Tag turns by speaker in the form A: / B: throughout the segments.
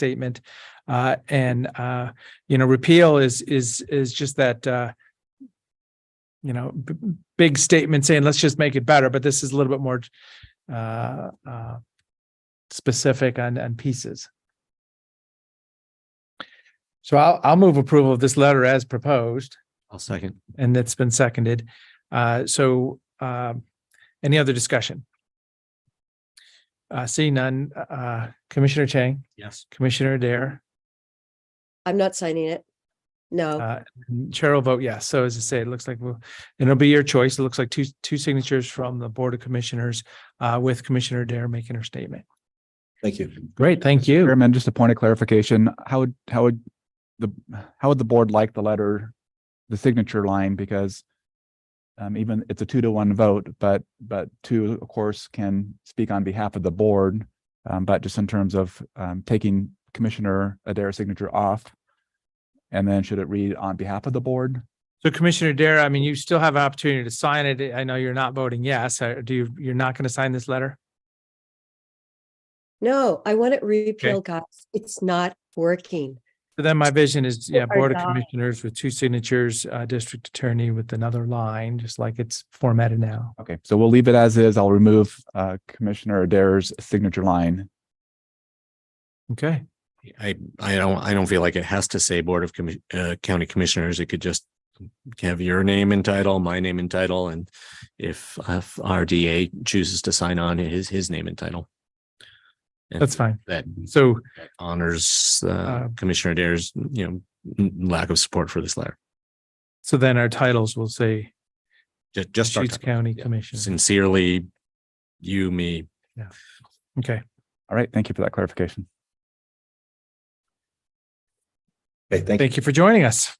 A: statement. Uh, and, uh, you know, repeal is, is, is just that, uh, you know, b- big statement saying, let's just make it better, but this is a little bit more, uh, uh, specific on, on pieces. So I'll, I'll move approval of this letter as proposed,
B: I'll second.
A: and that's been seconded. Uh, so, um, any other discussion? Uh, seeing none, uh, Commissioner Chang,
B: Yes.
A: Commissioner Dare,
C: I'm not signing it. No,
A: Uh, Chair will vote yes. So as I say, it looks like, we'll and it'll be your choice. It looks like two, two signatures from the Board of Commissioners uh, with Commissioner Dare making her statement.
B: Thank you.
A: Great, thank you.
D: Chairman, just a point of clarification, how would, how would the, how would the board like the letter, the signature line, because um, even, it's a two to one vote, but, but two, of course, can speak on behalf of the board. Um, but just in terms of, um, taking Commissioner Adair's signature off. And then should it read on behalf of the board?
A: So Commissioner Dare, I mean, you still have an opportunity to sign it. I know you're not voting yes. Uh, Do you, you're not going to sign this letter?
C: no, I want it repealed, guys. It's not working.
A: So Then my vision is, yeah,
C: are
A: Board of
C: dying.
A: Commissioners with two signatures, uh, District Attorney with another line, just like it's formatted now.
D: Okay, so we'll leave it as is. I'll remove, uh, Commissioner Adair's signature line.
A: Okay,
B: I, I don't, I don't feel like it has to say Board of Commi- uh, County Commissioners. It could just have your name and title, my name and title, and if if RDA chooses to sign on, his, his name and title. And
A: that's fine.
B: That
A: So
B: honors
A: Uh,
B: uh, Commissioner Dare's, you know, n- lack of support for this letter.
A: So then our titles will say
B: Ju- Just our
A: Deschutes
B: title.
A: County
B: Yeah.
A: Commission.
B: sincerely, you, me.
A: Okay.
D: All right, thank you for that clarification.
E: Okay, thank you.
A: Thank you for joining us.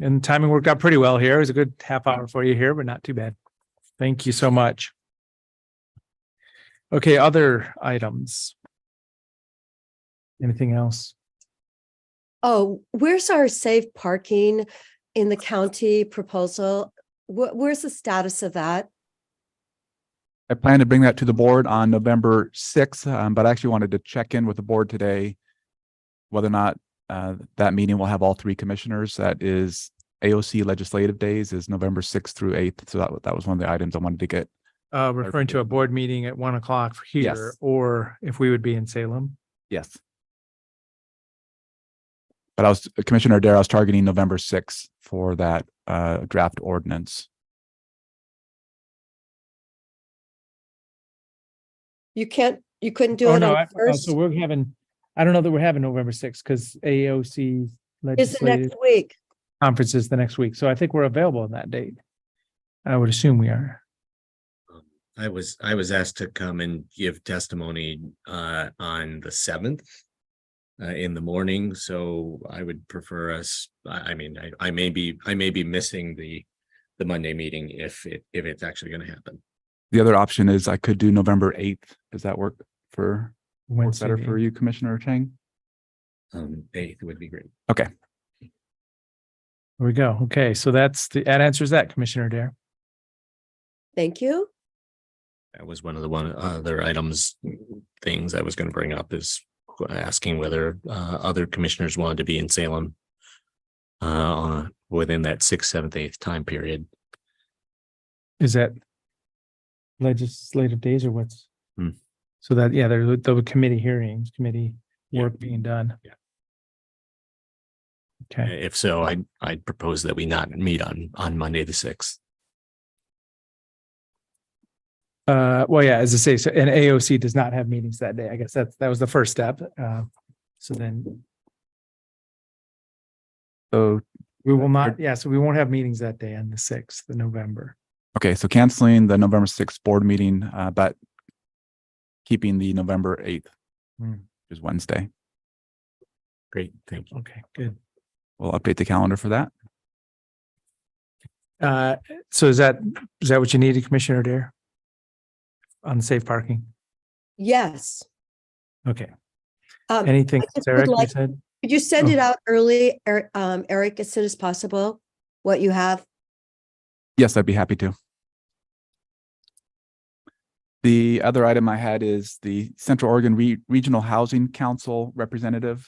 A: And timing worked out pretty well here. It was a good half hour for you here, but not too bad. Thank you so much. Okay, other items? Anything else?
C: Oh, where's our safe parking in the county proposal? Wh- where's the status of that?
D: I plan to bring that to the board on November sixth, um, but I actually wanted to check in with the board today. Whether or not, uh, that meeting will have all three commissioners. That is AOC legislative days is November sixth through eighth. So that, wa- that was one of the items I wanted to get.
A: Uh, referring to a board meeting at one o'clock for here,
D: Yes.
A: or if we would be in Salem.
D: Yes. But I was, Commissioner Dare, I was targeting November sixth for that, uh, draft ordinance.
C: You can't, you couldn't do
A: Oh
C: it
A: no! I
C: on
A: forgot.
C: first?
A: So we're having, I don't know that we're having November sixth because AOC
C: Is it
A: legislative
C: next week?
A: conference is the next week. So I think we're available on that date. I would assume we are.
B: I was, I was asked to come and give testimony uh, on the seventh uh, in the morning, so I would prefer us, I, I mean, I, I may be, I may be missing the the Monday meeting if it, if it's actually going to happen.
D: The other option is I could do November eighth. Does that work for, work
A: Wednesday
D: better
A: the
D: for you, Commissioner Chang?
B: Um, eighth would be great.
A: There we go. Okay, so that's the, that answers that, Commissioner Dare.
C: Thank you.
B: That was one of the one other items, things I was going to bring up is asking whether uh, other commissioners wanted to be in Salem uh, on- within that sixth, seventh, eighth time period.
A: Is that legislative days or what's?
B: Hmm.
A: So that, yeah, there, there were committee hearings, committee
B: Yeah.
A: work being done.
B: Yeah.
A: Okay,
B: If so, I, I'd propose that we not meet on, on Monday, the sixth.
A: uh, well, yeah, as I say, so, and AOC does not have meetings that day. I guess that's, that was the first step. Uh, so then
D: So
A: we will not, yeah, so we won't have meetings that day on the sixth of November.
D: Okay, so canceling the November sixth board meeting, uh, but keeping the November eighth,
A: Hmm.
D: which is Wednesday.
B: Great, thank you.
A: Okay, good.
D: We'll update the calendar for that.
A: Uh, so is that, is that what you needed, Commissioner Dare? On safe parking?
C: Yes.
A: Okay,
C: Um,
A: anything,
C: I just would
A: Sarah, you
C: like-
A: said?
C: could you send
A: Oh.
C: it out early, Eric, um, Eric, as soon as possible? What you have?
D: Yes, I'd be happy to. The other item I had is the Central Oregon Re- Regional Housing Council representative.